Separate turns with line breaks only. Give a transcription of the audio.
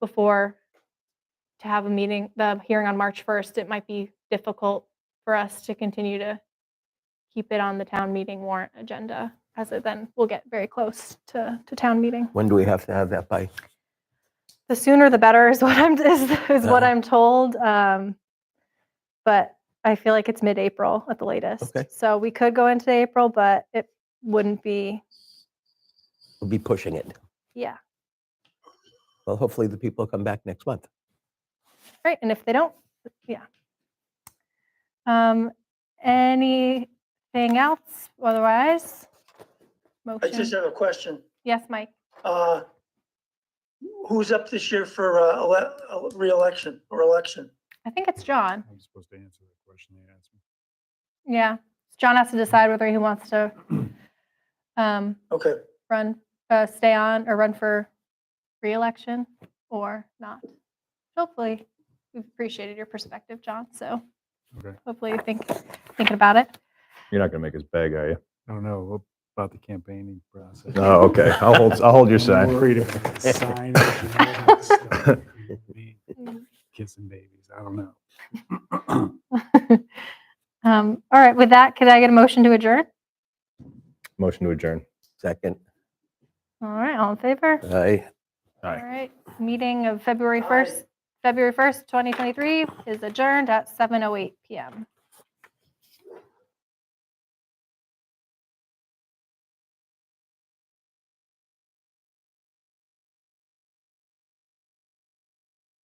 before to have a meeting, the hearing on March 1st, it might be difficult for us to continue to keep it on the town meeting warrant agenda, as it then will get very close to, to town meeting.
When do we have to have that by?
The sooner the better is what I'm, is, is what
Uh-huh.
I'm told. Um, but I feel like it's mid-April at the latest.
Okay.
So we could go into April, but it wouldn't be,
We'll be pushing it.
yeah.
Well, hopefully the people come back next month.
Right, and if they don't, yeah. Um, anything else otherwise?
I
Motion,
just have a question.
yes, Mike,
Uh, Who's up this year for uh, ele- uh, reelection or election?
I think it's John,
I'm supposed to answer the question they asked me.
yeah. John has to decide whether he wants to um,
Okay,
run, uh, stay on or run for reelection or not. Hopefully, we've appreciated your perspective, John, so
Okay.
hopefully you think, thinking about it.
You're not gonna make us beg, are you?
I don't know about the campaigning process.
Oh, okay. I'll hold, I'll hold your side.
Freedom.
Mm.
Kissing babies. I don't know.
Um, All right, with that, could I get a motion to adjourn?
Motion to adjourn.
Second,
All right, all in favor?
I
Aye.
All right, meeting of February
Aye.
oh 1st, February 1st, 2023 is adjourned at 7:08 PM.